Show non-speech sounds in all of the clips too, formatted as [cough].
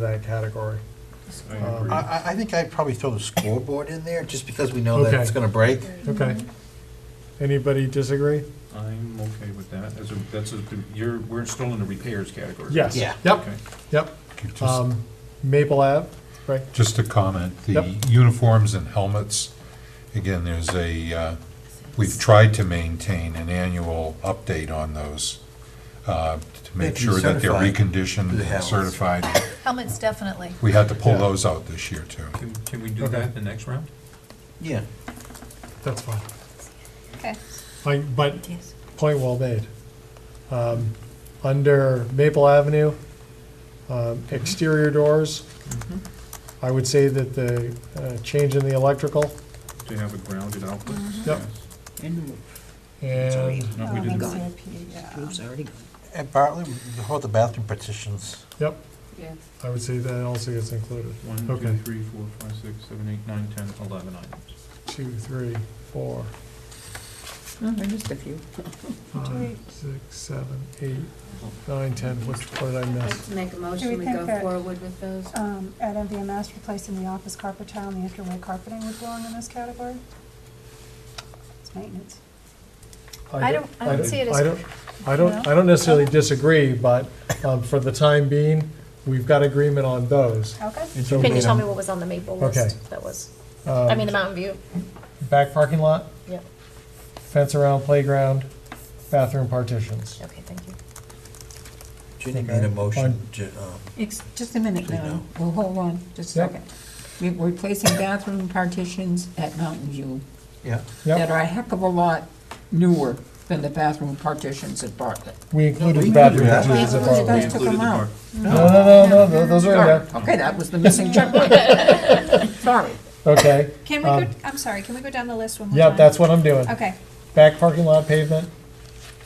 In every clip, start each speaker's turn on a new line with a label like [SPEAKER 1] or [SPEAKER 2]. [SPEAKER 1] that category.
[SPEAKER 2] I
[SPEAKER 1] Um,
[SPEAKER 2] agree.
[SPEAKER 3] I, I- I think I'd probably throw the scoreboard in there, just because we know that
[SPEAKER 1] Okay.
[SPEAKER 3] it's gonna break.
[SPEAKER 1] Okay. Anybody disagree?
[SPEAKER 2] I'm okay with that. That's a, that's a, you're, we're still in the repairs category.
[SPEAKER 1] Yes.
[SPEAKER 3] Yeah.
[SPEAKER 1] Yep,
[SPEAKER 2] Okay.
[SPEAKER 1] yep.
[SPEAKER 4] Just-
[SPEAKER 1] Um, Maple Ave, right?
[SPEAKER 4] Just a comment, the
[SPEAKER 1] Yep.
[SPEAKER 4] uniforms and helmets, again, there's a, uh, we've tried to maintain an annual update on those uh, to
[SPEAKER 3] They've been
[SPEAKER 4] make sure that they're
[SPEAKER 3] certified,
[SPEAKER 4] reconditioned
[SPEAKER 3] the
[SPEAKER 4] and
[SPEAKER 3] helmets.
[SPEAKER 4] certified.
[SPEAKER 5] Helmets, definitely.
[SPEAKER 4] We had to pull
[SPEAKER 1] Yeah.
[SPEAKER 4] those out this year, too.
[SPEAKER 2] Can, can we do
[SPEAKER 1] Okay.
[SPEAKER 2] that the next round?
[SPEAKER 3] Yeah.
[SPEAKER 1] That's fine.
[SPEAKER 5] Okay.
[SPEAKER 1] Like, but Point well made. Um, Under Maple Avenue, um, exterior doors, I would say that the uh, change in the electrical
[SPEAKER 2] To have it grounded out?
[SPEAKER 6] Mm-hmm.
[SPEAKER 1] Yep. and,
[SPEAKER 2] No, we didn't.
[SPEAKER 3] And Bartley, how about the bathroom partitions?
[SPEAKER 1] yep,
[SPEAKER 7] Yes.
[SPEAKER 1] I would say that also gets included.
[SPEAKER 2] One,
[SPEAKER 1] Okay.
[SPEAKER 2] two, three, four, five, six, seven, eight, nine, ten, eleven items.
[SPEAKER 1] Two, three, four,
[SPEAKER 7] Oh, I missed a few.
[SPEAKER 1] five, six, seven, eight, nine, ten, which, what did I miss?
[SPEAKER 7] Let's make a
[SPEAKER 8] Do we
[SPEAKER 7] motion, we
[SPEAKER 8] think
[SPEAKER 7] go
[SPEAKER 8] that-
[SPEAKER 7] forward with those.
[SPEAKER 8] Um, at MVMS, replacing the office carpet tile and the entryway carpeting would belong in this category? It's maintenance.
[SPEAKER 5] I don't- I don't see it as-
[SPEAKER 1] I don't, I don't, I don't necessarily disagree, but um, for the time being, we've got agreement on those.
[SPEAKER 8] Okay.
[SPEAKER 1] So
[SPEAKER 5] Can you tell
[SPEAKER 1] um,
[SPEAKER 5] me what was on the Maple
[SPEAKER 1] Okay. Um,
[SPEAKER 5] list? That was, I mean, the Mountain View,
[SPEAKER 1] Back parking lot,
[SPEAKER 5] yep,
[SPEAKER 1] fence around playground, bathroom partitions.
[SPEAKER 5] okay, thank you.
[SPEAKER 3] Ginny made a motion, Ju- um,
[SPEAKER 6] Ex- Just a minute
[SPEAKER 3] Actually,
[SPEAKER 6] now,
[SPEAKER 3] no.
[SPEAKER 6] well, hold on, just a
[SPEAKER 1] Yep.
[SPEAKER 6] second. We- We're replacing bathroom partitions at Mountain View
[SPEAKER 3] yeah,
[SPEAKER 6] that
[SPEAKER 1] Yep,
[SPEAKER 6] are a heck of a lot newer than the bathroom partitions at Bartlett.
[SPEAKER 1] we included
[SPEAKER 3] can
[SPEAKER 1] bathroom
[SPEAKER 3] do that.
[SPEAKER 1] partitions.
[SPEAKER 6] Those
[SPEAKER 1] above.
[SPEAKER 6] guys
[SPEAKER 2] We
[SPEAKER 6] took
[SPEAKER 2] included
[SPEAKER 6] them
[SPEAKER 2] the
[SPEAKER 6] out.
[SPEAKER 1] No, no, no, no, those are in there,
[SPEAKER 6] Darn, Okay, that was the
[SPEAKER 1] [laughs]
[SPEAKER 6] missing checkpoint. Sorry.
[SPEAKER 1] okay.
[SPEAKER 8] [laughs] Can
[SPEAKER 1] we go- Um,
[SPEAKER 8] I'm sorry, can we go down the list one
[SPEAKER 1] Yep, that's what I'm doing.
[SPEAKER 8] Okay.
[SPEAKER 1] Back parking lot pavement,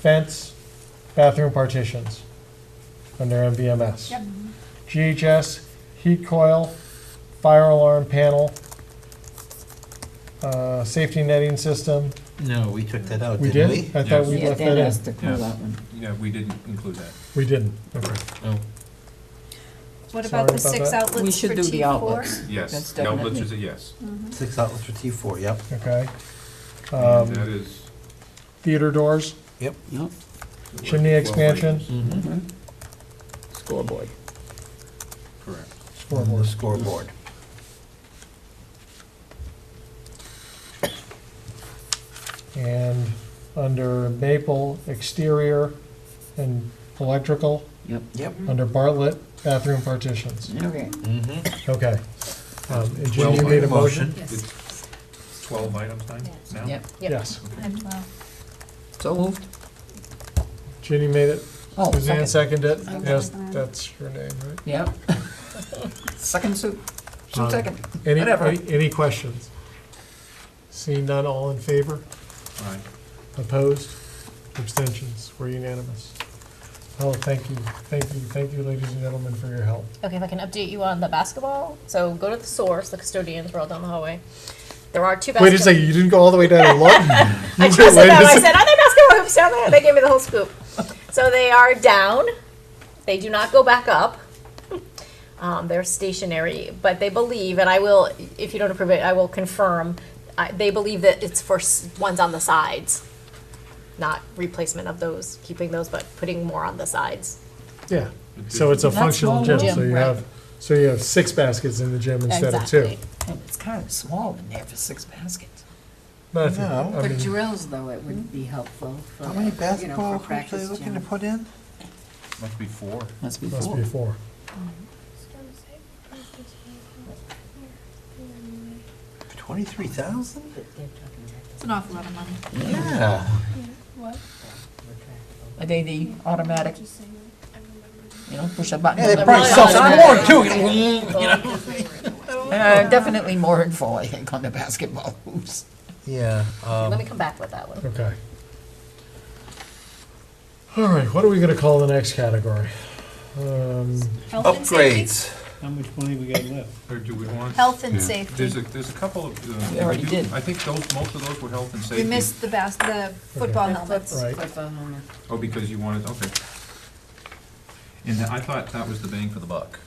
[SPEAKER 1] fence, bathroom partitions, under MVMS.
[SPEAKER 8] Yep.
[SPEAKER 1] GHS, heat coil, fire alarm panel, uh, safety netting system.
[SPEAKER 3] no, we took that out,
[SPEAKER 1] We
[SPEAKER 3] didn't
[SPEAKER 1] did?
[SPEAKER 3] we?
[SPEAKER 1] I thought we
[SPEAKER 6] Yeah,
[SPEAKER 1] left
[SPEAKER 6] that
[SPEAKER 1] that
[SPEAKER 6] has
[SPEAKER 1] in.
[SPEAKER 6] to clear that one.
[SPEAKER 2] Yeah, we didn't include that.
[SPEAKER 1] We didn't, okay.
[SPEAKER 3] No.
[SPEAKER 8] What
[SPEAKER 1] about the Sorry about six that.
[SPEAKER 6] We should do the outlets.
[SPEAKER 2] Yes.
[SPEAKER 6] That's
[SPEAKER 2] The Outlets
[SPEAKER 6] definitely-
[SPEAKER 2] is a yes.
[SPEAKER 3] Six outlets for T four, yep,
[SPEAKER 1] Okay.
[SPEAKER 2] And uh, That
[SPEAKER 1] Um,
[SPEAKER 2] is.
[SPEAKER 1] Theater doors,
[SPEAKER 3] yep.
[SPEAKER 6] Yep.
[SPEAKER 1] Chimney
[SPEAKER 2] Well,
[SPEAKER 1] expansion.
[SPEAKER 2] right,
[SPEAKER 6] Mm-hmm. Scoreboard.
[SPEAKER 2] Correct.
[SPEAKER 3] On the
[SPEAKER 1] scoreboard.
[SPEAKER 3] scoreboard.
[SPEAKER 1] And under Maple, exterior and electrical.
[SPEAKER 6] Yep,
[SPEAKER 3] Yep.
[SPEAKER 1] Under Bartlett, bathroom partitions.
[SPEAKER 6] okay.
[SPEAKER 3] Mm-hmm.
[SPEAKER 1] Okay. Um, and Jim,
[SPEAKER 2] Well,
[SPEAKER 1] you made a motion?
[SPEAKER 7] Yes.
[SPEAKER 2] It's twelve items time now?
[SPEAKER 6] Yep,
[SPEAKER 1] Yes.
[SPEAKER 6] so moved.
[SPEAKER 1] Ginny made it,
[SPEAKER 6] Oh,
[SPEAKER 1] Suzanne
[SPEAKER 6] second.
[SPEAKER 1] seconded it.
[SPEAKER 8] Okay.
[SPEAKER 1] Yes, that's your name, right?
[SPEAKER 6] Yep. [laughs] Second suit,
[SPEAKER 1] Um,
[SPEAKER 6] suit second.
[SPEAKER 1] Any,
[SPEAKER 6] Whatever.
[SPEAKER 1] any- any questions? Seeing none, all in favor?
[SPEAKER 2] All right.
[SPEAKER 1] Opposed? Abstentions? We're unanimous. Oh, thank you, thank you, thank you, ladies and gentlemen, for your help.
[SPEAKER 5] Okay, if I can update you on the basketball, so go to the source, the custodians, we're all down the hallway. There are two
[SPEAKER 1] Wait a
[SPEAKER 5] basketball.
[SPEAKER 1] second, you didn't go all the way down and look?
[SPEAKER 6] [laughs]
[SPEAKER 5] I trusted them, I said, are there basketball hoops down there? And they gave me the whole scoop. So they are down, they do not go back up. Um, they're stationary, but they believe, and I will, if you don't approve it, I will confirm, I, they believe that it's for s- ones on the sides. Not replacement of those, keeping those, but putting more on the sides.
[SPEAKER 1] Yeah, so it's a
[SPEAKER 6] That's
[SPEAKER 1] functional
[SPEAKER 6] all
[SPEAKER 1] gym,
[SPEAKER 6] gym,
[SPEAKER 1] so you
[SPEAKER 6] right.
[SPEAKER 1] have, so you have six baskets in the gym instead of two.
[SPEAKER 5] Exactly.
[SPEAKER 6] And it's kind of small in there for six baskets.
[SPEAKER 1] Matthew,
[SPEAKER 3] No.
[SPEAKER 1] I
[SPEAKER 7] For
[SPEAKER 1] mean,
[SPEAKER 7] drills, though, it would be helpful for,
[SPEAKER 3] How many
[SPEAKER 7] you know,
[SPEAKER 3] basketball hoops are
[SPEAKER 7] for
[SPEAKER 3] they
[SPEAKER 7] practice
[SPEAKER 3] looking to
[SPEAKER 7] gym.
[SPEAKER 3] put in?
[SPEAKER 2] Must be four.
[SPEAKER 6] Must be
[SPEAKER 1] must
[SPEAKER 6] four.
[SPEAKER 1] be four.
[SPEAKER 3] Twenty-three thousand?
[SPEAKER 7] But they're talking about
[SPEAKER 8] It's an awful lot of money.
[SPEAKER 3] Yeah.
[SPEAKER 7] the retractable.
[SPEAKER 6] Are they the automatic? You know, push a button. Uh,
[SPEAKER 3] Yeah, they
[SPEAKER 6] and
[SPEAKER 3] probably
[SPEAKER 6] everything.
[SPEAKER 3] sell some more too.
[SPEAKER 6] Uh, Definitely more info, I think, on the basketball hoops.
[SPEAKER 3] Yeah, um,
[SPEAKER 5] Let me come back with that one.
[SPEAKER 1] Okay. All right, what are we gonna call the next category? Um,
[SPEAKER 3] upgrades.
[SPEAKER 9] How much money we got left?
[SPEAKER 2] Or do we want?
[SPEAKER 7] Health and
[SPEAKER 4] Yeah.
[SPEAKER 7] safety.
[SPEAKER 2] There's a, there's a couple of. uh,
[SPEAKER 6] We already
[SPEAKER 2] do-
[SPEAKER 6] did.
[SPEAKER 2] I think those, most of those were health and safety.
[SPEAKER 8] We missed the bas, the football helmets.
[SPEAKER 1] right.
[SPEAKER 7] Football helmet.
[SPEAKER 2] Oh, because you wanted, okay. And I thought that was the bang for the buck.